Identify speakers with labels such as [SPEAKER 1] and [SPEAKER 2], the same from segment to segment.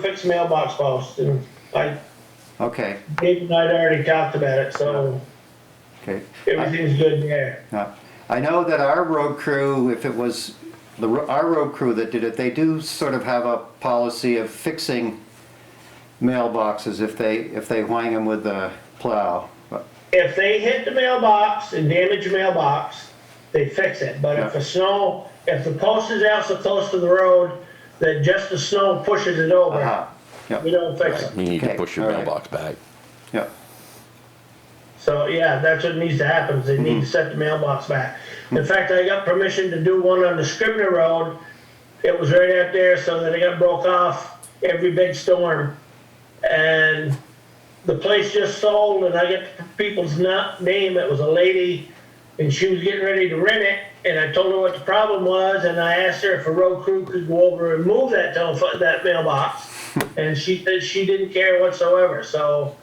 [SPEAKER 1] fix mailbox post, and I,
[SPEAKER 2] Okay,
[SPEAKER 1] Dave and I'd already talked about it, so
[SPEAKER 2] okay.
[SPEAKER 1] everything's good there.
[SPEAKER 2] Uh, I know that our road crew, if it was the, ro- our road crew that did it, they do sort of have a policy of fixing mailboxes if they, if they whang them with the plow. But-
[SPEAKER 1] If they hit the mailbox and damage the mailbox, they fix it, but if the snow, if the post is out so close to the road that just the snow pushes it over,
[SPEAKER 2] Aha,
[SPEAKER 1] we
[SPEAKER 2] yeah,
[SPEAKER 1] don't fix
[SPEAKER 3] You
[SPEAKER 1] it.
[SPEAKER 3] need to
[SPEAKER 2] Okay,
[SPEAKER 3] push your
[SPEAKER 2] all right.
[SPEAKER 3] mailbox back.
[SPEAKER 2] yeah,
[SPEAKER 1] So, yeah, that's what needs to happen, is they need to set the mailbox back. In fact, I got permission to do one on the Scribner Road, it was right out there, so that it got broke off every big storm. And the place just sold, and I get people's na- name, it was a lady, and she was getting ready to rent it, and I told her what the problem was, and I asked her if a road crew could go over and move that telephone, that mailbox. And she said she didn't care whatsoever, so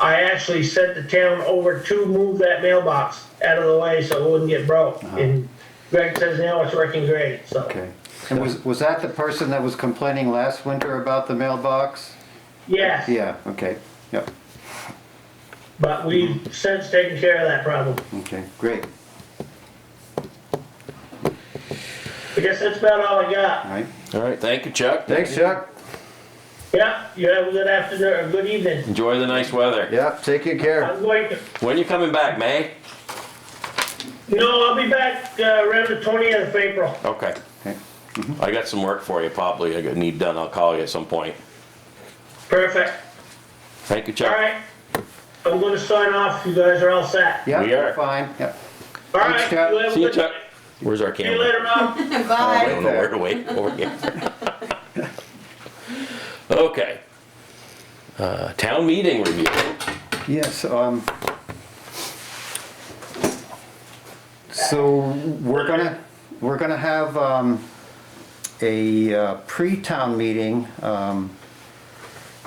[SPEAKER 1] I actually sent the town over to move that mailbox out of the way so it wouldn't get broke. And Greg says now it's working great, so.
[SPEAKER 2] Uh-huh. okay. And was, was that the person that was complaining last winter about the mailbox?
[SPEAKER 1] Yes,
[SPEAKER 2] Yeah, okay, yeah,
[SPEAKER 1] but we've since taken care of that problem.
[SPEAKER 2] okay, great,
[SPEAKER 1] I guess that's about all I
[SPEAKER 2] all
[SPEAKER 1] got.
[SPEAKER 2] right.
[SPEAKER 3] All right, thank you, Chuck.
[SPEAKER 2] Thanks, Chuck.
[SPEAKER 1] Yeah, you have a good afternoon, or good evening.
[SPEAKER 3] Enjoy the nice weather.
[SPEAKER 2] Yeah, take good care.
[SPEAKER 1] I'm going to,
[SPEAKER 3] When you coming back, May?
[SPEAKER 1] no, I'll be back uh, around the twentieth of April.
[SPEAKER 3] Okay.
[SPEAKER 2] Okay.
[SPEAKER 3] I got some work for you, probably. I got- need done. I'll call you at some point.
[SPEAKER 1] Perfect.
[SPEAKER 3] Thank you,
[SPEAKER 1] All
[SPEAKER 3] Chuck.
[SPEAKER 1] right. I'm gonna sign off. You guys are all set.
[SPEAKER 2] Yeah,
[SPEAKER 3] We are.
[SPEAKER 2] fine, yeah.
[SPEAKER 1] All right.
[SPEAKER 2] Thanks, Chuck.
[SPEAKER 1] have a
[SPEAKER 3] See you,
[SPEAKER 1] good
[SPEAKER 3] Chuck.
[SPEAKER 1] night.
[SPEAKER 3] Where's our
[SPEAKER 1] See you
[SPEAKER 3] camera?
[SPEAKER 1] later, Rob.
[SPEAKER 2] All
[SPEAKER 3] I
[SPEAKER 2] right.
[SPEAKER 3] don't know where to wait. Over here. Okay. Uh, town meeting review.
[SPEAKER 2] Yes, um. So we're gonna, we're gonna have, um, a uh, pre-town meeting, um,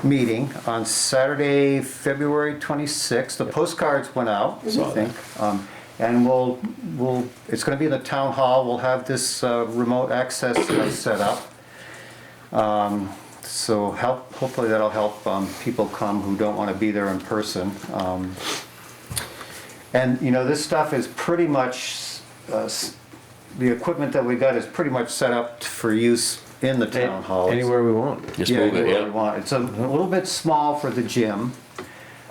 [SPEAKER 2] meeting on Saturday, February twenty-sixth. The postcards went out, I
[SPEAKER 3] Saw that.
[SPEAKER 2] think. Um, and we'll, we'll, it's gonna be in the town hall. We'll have this, uh, remote access uh, set up. So help, hopefully that'll help um, people come who don't want to be there in person. Um, And, you know, this stuff is pretty much, uh, s- the equipment that we got is pretty much set up for use in the town hall.
[SPEAKER 4] Anywhere we want.
[SPEAKER 3] Just
[SPEAKER 2] Yeah,
[SPEAKER 3] move it,
[SPEAKER 2] anywhere we
[SPEAKER 3] yeah.
[SPEAKER 2] want. It's a little bit small for the gym.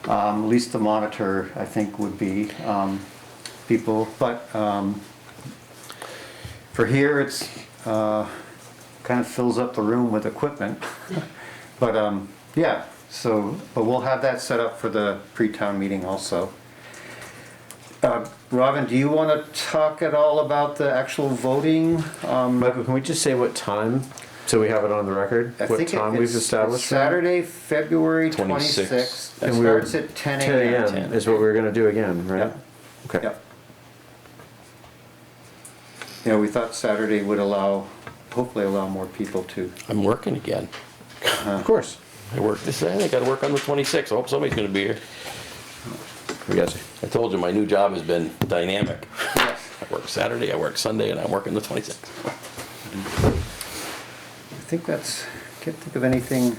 [SPEAKER 2] Um, At least the monitor, I think, would be um, people, but um, for here, it's, uh, kind of fills up the room with equipment. But, um, yeah, so, but we'll have that set up for the pre-town meeting also. Uh, Robin, do you want to talk at all about the actual voting? Um,
[SPEAKER 4] Michael, can we just say what time, so we have it on the record?
[SPEAKER 2] I
[SPEAKER 4] What
[SPEAKER 2] think it-
[SPEAKER 4] time
[SPEAKER 2] it's-
[SPEAKER 4] we've
[SPEAKER 2] it's
[SPEAKER 4] established?
[SPEAKER 2] Saturday, February
[SPEAKER 3] 26th.
[SPEAKER 2] twenty-sixth. It
[SPEAKER 4] And we were-
[SPEAKER 2] starts at ten
[SPEAKER 4] Ten
[SPEAKER 2] AM.
[SPEAKER 4] AM is what we're gonna do again, right?
[SPEAKER 2] Yep.
[SPEAKER 4] Okay.
[SPEAKER 2] Yep. Yeah, we thought Saturday would allow, hopefully allow more people to.
[SPEAKER 3] I'm working again.
[SPEAKER 4] Of course.
[SPEAKER 3] I work this day. I gotta work on the 26th. I hope somebody's gonna be here.
[SPEAKER 4] We got you.
[SPEAKER 3] I told you, my new job has been dynamic. I work Saturday, I work Sunday, and I'm working the 26th.
[SPEAKER 2] I think that's, can't think of anything.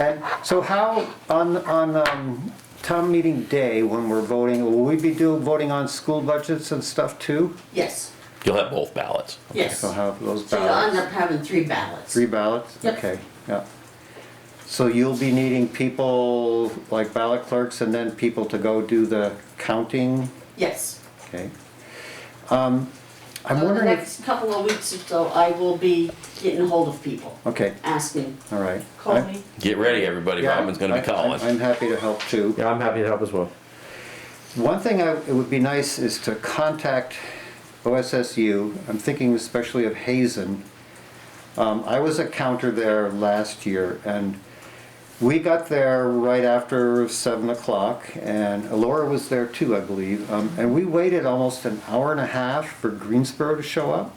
[SPEAKER 2] And so how, on, on, um, town meeting day, when we're voting, will we be doing, voting on school budgets and stuff too?
[SPEAKER 5] Yes,
[SPEAKER 3] You'll have both ballots.
[SPEAKER 5] yes.
[SPEAKER 2] We'll
[SPEAKER 5] So
[SPEAKER 2] have those
[SPEAKER 5] you'll end
[SPEAKER 2] ballots,
[SPEAKER 5] up having three ballots.
[SPEAKER 2] Uh-huh. three ballots?
[SPEAKER 5] Yep.
[SPEAKER 2] Okay, yeah. So you'll be needing people, like ballot clerks, and then people to go do the counting?
[SPEAKER 5] Yes.
[SPEAKER 2] Okay. Um, I'm
[SPEAKER 5] In Uh, the
[SPEAKER 2] wondering if,
[SPEAKER 5] next couple of weeks or so, I will be getting hold of people,
[SPEAKER 2] okay,
[SPEAKER 5] asking,
[SPEAKER 2] all right.
[SPEAKER 5] call me.
[SPEAKER 3] Get ready, everybody.
[SPEAKER 2] Yeah,
[SPEAKER 3] Robin's gonna be
[SPEAKER 2] I-
[SPEAKER 3] calling.
[SPEAKER 2] I'm happy to help too.
[SPEAKER 4] Yeah, I'm happy to help as well.
[SPEAKER 2] One thing I, it would be nice is to contact OSSU, I'm thinking especially of Hazen. Um, I was a counter there last year, and we got there right after seven o'clock, and Alora was there too, I believe, um, and we waited almost an hour and a half for Greensboro to show up.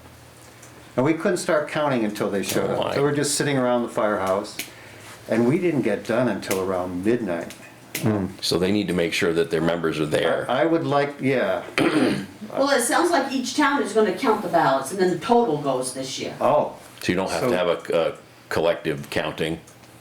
[SPEAKER 2] And we couldn't start counting until they showed
[SPEAKER 3] Oh,
[SPEAKER 2] up,
[SPEAKER 3] my.
[SPEAKER 2] so we're just sitting around the firehouse, and we didn't get done until around midnight.
[SPEAKER 3] So they need to make sure that their members are there.
[SPEAKER 2] I would like, yeah,
[SPEAKER 5] Well, it sounds like each town is gonna count the ballots, and then the total goes this year.
[SPEAKER 2] oh,
[SPEAKER 3] So you don't have
[SPEAKER 2] So-
[SPEAKER 3] to have a, a collective counting.